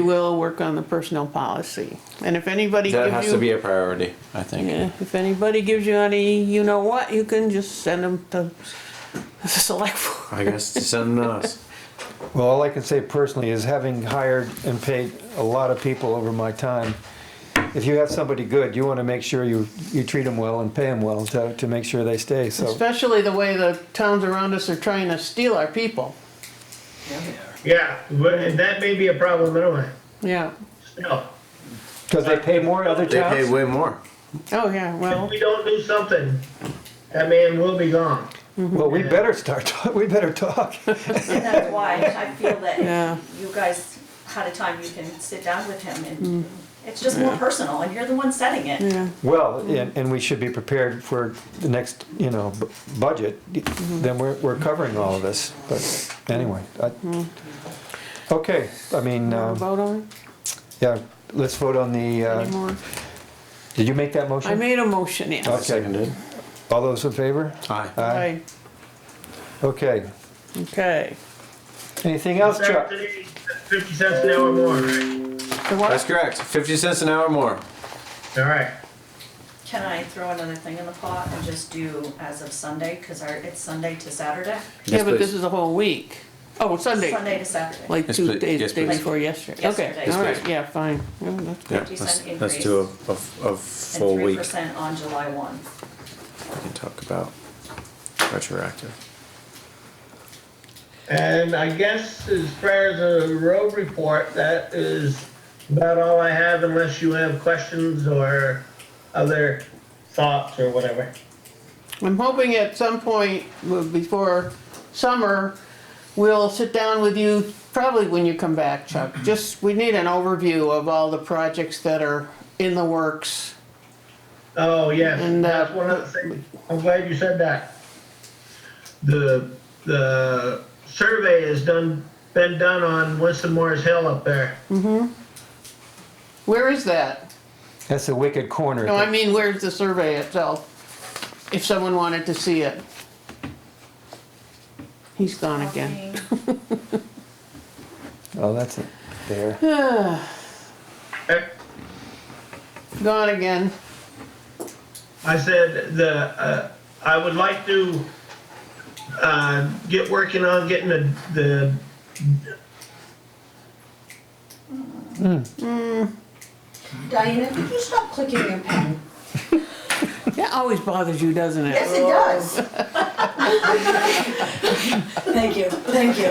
We will work on the personnel policy. And if anybody That has gives to you, be a priority, I think. yeah, if anybody gives you any, you know what, you can just send them to the select. board. I guess to send them to us. Well, all I can say personally is having hired and paid a lot of people over my time, if you have somebody good, you want to make sure you, you treat them well and pay them well to, to make sure they stay, so. Especially the way the towns around us are trying to steal our people. Yeah, but that may be a problem anyway. Yeah. Still, Because they pay more other They pay towns? way more. Oh, yeah, well. if we don't do something, that man will be gone. Well, we better start, talk- we better talk. And that's why I feel Yeah. that if you guys had a time, you can sit down with him and it's just more personal and you're the one setting it. Mm. Yeah, Well, and, and we should be prepared for the next, you know, bu- budget, then we're, we're covering all of this, but anyway. I- Okay, I mean, wanna uh, vote on yeah, let's vote on the, it uh, anymore? did you make that I motion? made a motion, yeah. Okay. Seconded. All those in favor? Aye. Aye. Okay, Okay. anything else, Chuck? Fifty cents an hour more, right? So what- That's correct. Fifty cents an hour more. All right. Can I throw another thing in the pot and just do as of Sunday, cause our, it's Sunday to Saturday? Yeah, Yes, but this please. is a whole week. Oh, Sunday, Sunday to Saturday, like Yes, two please. days, Yes, day please. before yesterday. Yesterday. Okay, Yes, all right, please. yeah, fine. Yeah, that's Yeah, Fifty that's, cent that's increase. two of, of, of full and three weeks. percent on July one. We can talk about retroactive. And I guess as far as the road report, that is about all I have unless you have questions or other thoughts or whatever. I'm hoping at some point well, before summer, we'll sit down with you, probably when you come back, Chuck. Just, we need an overview of all the projects that are in the works. Oh, yes, And, uh, that's one of the things, I'm glad you said that. The, the survey has done, been done on Winston Morris Hill up there. Where is that? That's a wicked corner. No, I mean, where's the survey itself? If someone wanted to see it. He's gone again. Oh, that's it, there. Oh, Gone again. I said the, uh, I would like to, uh, get working on getting the, the. Diana, could you stop clicking your pen? That always bothers you, doesn't it? Yes, it does. Thank you, thank you.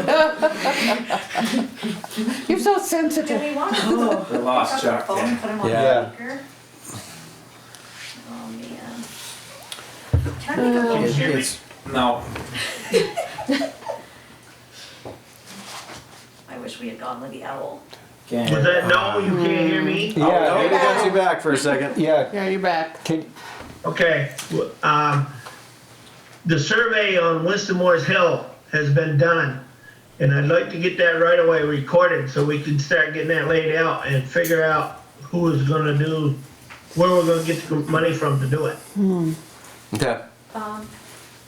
You're so Do sensitive. we want to? We lost Chuck, Put yeah. him on Yeah. speaker? Oh, man. Can I make a Uh. Oh, motion? No. I wish we had gone with the owl. Was that no? You can't hear me? Yeah, Yeah, we got you back for a second. yeah, Yeah, you're back. can, Okay, w- um, the survey on Winston Moore's Hill has been done. And I'd like to get that right away recorded so we can start getting that laid out and figure out who is gonna do, where we're gonna get the money from to do it. Okay.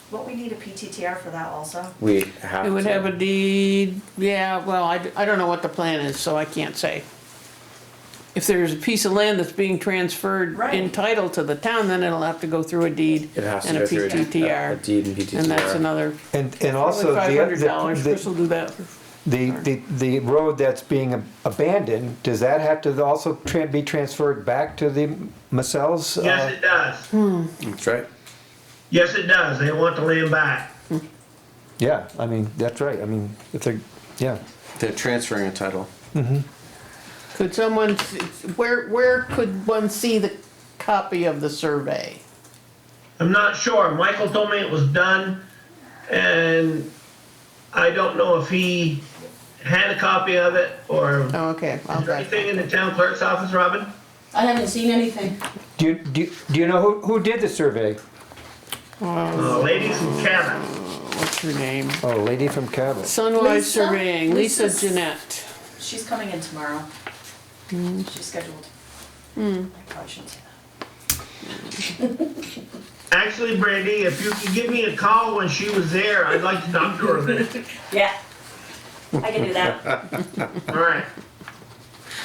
What we need a PTTR for that also? We have. It would to- have a deed, yeah, well, I, I don't know what the plan is, so I can't say. If there's a piece of land that's being transferred in Right. title to the town, then it'll have to go through a deed It has to and a go through a D- a- a PTTR. deed and PTTR. And that's another, and, and also probably five the, hundred dollars, Chris the, will do that. the, the, the road that's being abandoned, does that have to also tran, be transferred back to the Macells? uh, Yes, it does. That's right. Yes, it does. They want the land back. Yeah, I mean, that's right, I mean, if they're, yeah, They're transferring a title. Could someone, s- where, where could one see the copy of the survey? I'm not sure. Michael told me it was done, and I don't know if he had a copy of it or. Oh, okay, I'll Is there drive. anything in the town clerk's office, Robin? I haven't seen anything. do you, do you, do you know who, who did the survey? Uh, Ladies and cabin. What's her name? Oh, a lady from Cabot, Sunwise Lisa? Surveying, Lisa Lisa's- Jeanette. She's coming in tomorrow. She's scheduled. I probably shouldn't say that. Actually, Brandy, if you could give me a call when she was there, I'd like to talk to her a minute. Yeah. I can do that. All right.